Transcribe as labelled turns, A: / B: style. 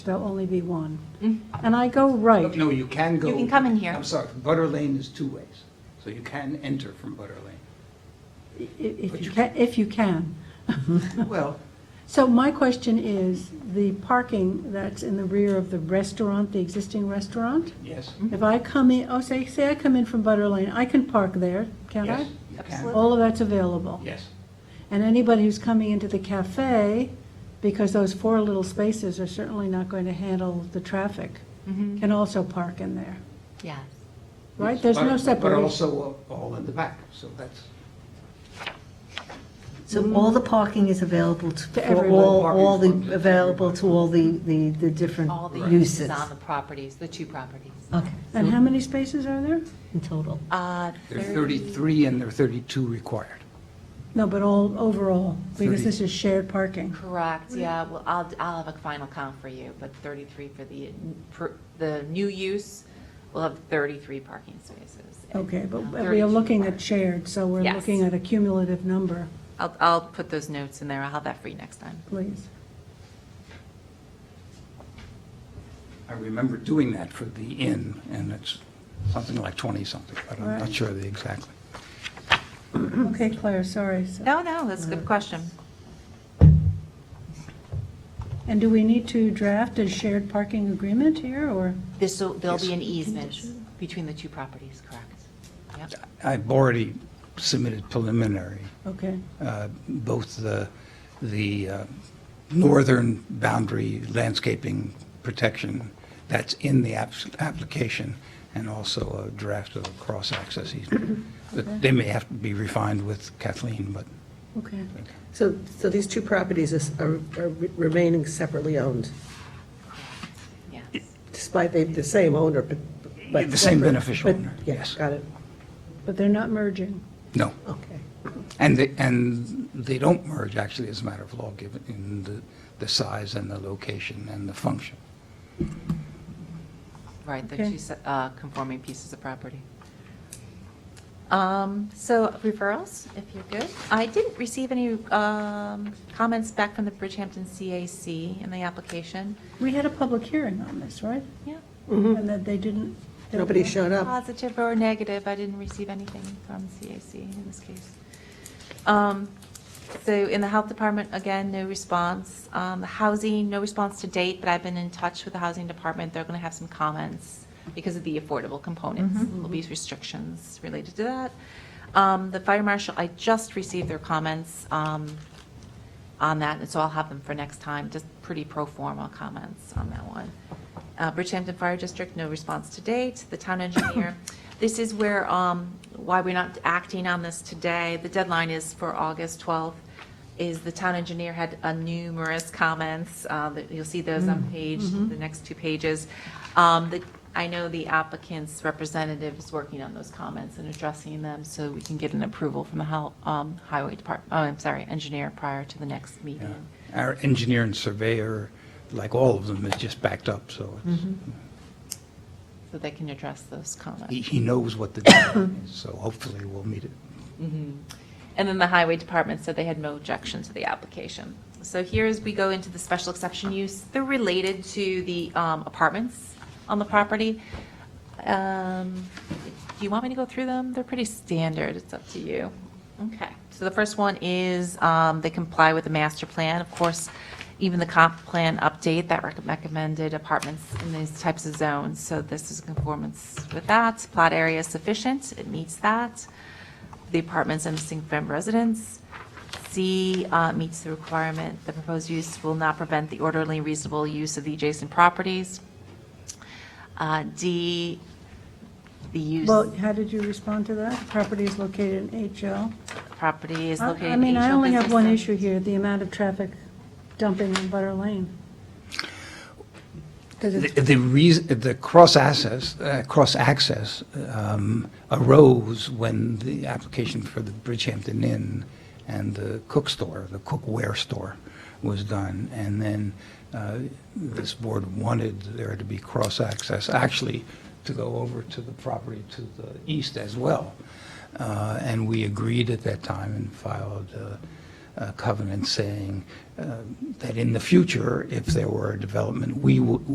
A: There'll only be one.
B: Mm-hmm.
A: And I go right.
C: No, you can go.
B: You can come in here.
C: I'm sorry, Butter Lane is two ways, so you can enter from Butter Lane.
A: i- If you can, if you can.
C: Mm-hmm. Well,
A: So my question is, the parking that's in the rear of the restaurant, the existing restaurant?
C: yes,
A: If I come in, oh, say, say I come in from Butter Lane, I can park there, can't I?
C: yes, you can,
B: Absolutely.
A: All of that's available.
C: yes.
A: And anybody who's coming into the cafe, because those four little spaces are certainly not going to handle the traffic,
B: Mhm.
A: can also park in there,
B: Yes.
A: right?
C: Mm-hmm. Yes,
A: There's
C: but-
A: no
C: But
A: separation.
C: also uh, all in the back, so that's,
D: So all the parking is available to,
A: To
D: for
A: everyone.
D: all, all
C: Parking
D: the,
C: for-
D: available to all the, the, the different
B: All the
D: uses?
B: uses on the properties, the two properties.
D: Okay,
A: And how
D: so
A: many spaces are there?
D: in total.
B: Uh,
C: there are
B: 30
C: 33 and there are 32 required.
A: No, but all, overall, because
C: Thirty.
A: this is shared parking.
B: Correct, yeah, well, I'll, I'll have a final count for you, but 33 for the, for the new use, we'll have 33 parking spaces. and,
A: Okay, but
B: uh,
A: we are
B: 32
A: looking at
B: parking.
A: shared, so we're
B: Yes.
A: looking at a cumulative number,
B: I'll, I'll put those notes in there, I'll have that for you next time.
A: please.
C: I remember doing that for the inn, and it's something like 20-something, but I'm not
A: Right.
C: sure the exactly.
A: Okay, Claire, sorry. So-
B: No, no, that's a
A: Uh,
B: good question.
A: And do we need to draft a shared parking agreement here, or?
B: This, will there'll be
C: Yes.
B: an easement between the two properties, correct? Yep.
C: I've already submitted preliminary,
A: Okay,
C: uh, both the, the uh, northern boundary landscaping protection that's in the apps- application, and also a draft of a cross-access easement. But They may have to be refined with Kathleen, but
A: okay.
E: So, so these two properties is- are are remaining separately owned,
B: Yes.
E: despite they, the same owner, but. but
C: The same
E: separate.
C: beneficial
E: But-
C: owner,
E: yeah,
C: yes.
E: Got it,
A: But they're not merging.
C: no.
E: okay.
C: And they, and they don't merge, actually, as a matter of law, given in the, the size and the location and the function.
B: Right, the
A: Okay.
B: two se- uh, conforming pieces of property. Um, So referrals, if you're good. I didn't receive any um, comments back from the Bridgehampton CAC in the application.
A: We had a public hearing on this, right?
B: Yeah,
A: And that they didn't. they were-
E: Hmm. Nobody showed up.
B: positive or negative, I didn't receive anything from CAC in this case. Um, So in the Health Department, again, no response. Um, The Housing, no response to date, but I've been in touch with the Housing Department. They're going to have some comments because of the affordable components. There'll be restrictions related to that. Um, The Fire Marshal, I just received their comments um, on that, and so I'll have them for next time, just pretty pro forma comments on that one. Uh, Bridgehampton Fire District, no response to date. The town engineer, this is where, um, why we're not acting on this today. The deadline is for August 12th, is the town engineer had uh, numerous comments. uh, that You'll see those on page, the next two pages. Um, the- I know the applicant's representative is working on those comments and addressing them, so we can get an approval from the hel- um, highway department, oh, I'm sorry, engineer prior to the next meeting.
C: Our engineer and surveyor, like all of them, is just backed up, so it's-
B: So they can address those comments.
C: he, he knows what the deadline is, so hopefully we'll meet it.
B: Mm-hmm. And then the highway department said they had no objection to the application. So here as we go into the special exception use, they're related to the um, apartments on the property. Um, Do you want me to go through them? They're pretty standard, it's up to you. Okay, so the first one is um, they comply with the master plan. Of course, even the comp plan update that rec- recommended apartments in these types of zones. So this is conformance with that. Plot area is sufficient, it meets that the apartments and distinct from residence. C uh, meets the requirement, the proposed use will not prevent the orderly and reasonable use of the adjacent properties. Uh, D, the use
A: Well, how did you respond to that? The Property is located in HL.
B: property is
A: I-
B: located.
A: I
B: in
A: mean, I
B: HO
A: only have one
B: business
A: issue here, the amount of traffic dumping in Butter Lane. 'Cause it's-
C: The the reason, the cross-access, uh, cross-access um, arose when the application for the Bridgehampton Inn and the cook store, the cookware store, was done. And then uh, this board wanted there to be cross-access, actually, to go over to the property to the east as well. Uh, And we agreed at that time and filed uh, uh, covenant saying uh, that in the future, if there were a development, we would,